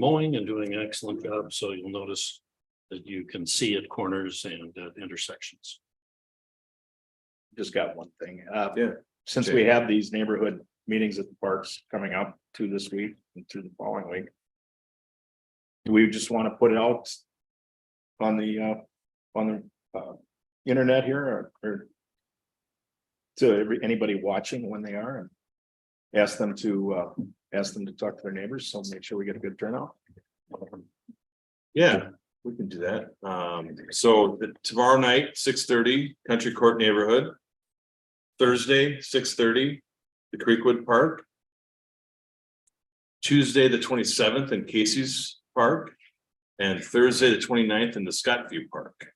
mowing and doing an excellent job, so you'll notice that you can see at corners and at intersections. just got one thing. Uh, Yeah. Since we have these neighborhood meetings at the parks coming up to this week and through the following week. Do we just want to put it out? On the, uh, on the, uh, internet here or, or? To every, anybody watching when they are and. Ask them to, uh, ask them to talk to their neighbors, so make sure we get a good turnout. Yeah, we can do that. Um, so the- tomorrow night, six thirty, Country Court Neighborhood. Thursday, six thirty, the Creekwood Park. Tuesday, the twenty seventh in Casey's Park. And Thursday, the 29th in the Scottview Park.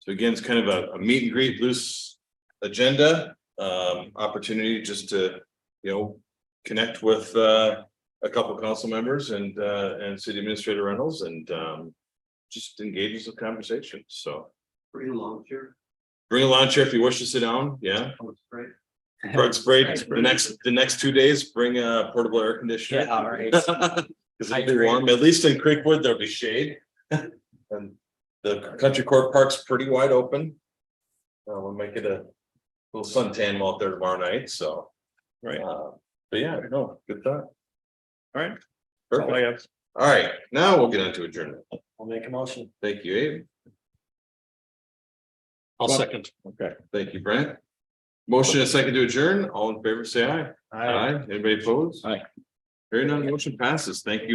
So again, it's kind of a, a meet and greet loose agenda, um, opportunity just to, you know, connect with, uh, a couple council members and uh and city administrator Reynolds and um. Just engage in some conversation, so Pretty long here. bring a lawn chair if you wish to sit down, yeah. Right. Park spray, the next, the next two days, bring a portable air conditioner. Yeah, all right. Cause it'll be warm, at least in Creekwood, there'll be shade. And the country court park's pretty wide open. Uh, we'll make it a little suntan while out there tomorrow night, so. Right. Uh, But yeah, no, good thought. All right. Perfect. Oh, yeah. All right, now we'll get into adjournment. I'll make a motion. Thank you, Abe. I'll second. Okay. Thank you, Brent. Motion and second to adjourn. All in favor, say aye. Anybody opposed? Aye. Hearing none, motion passes. Thank you.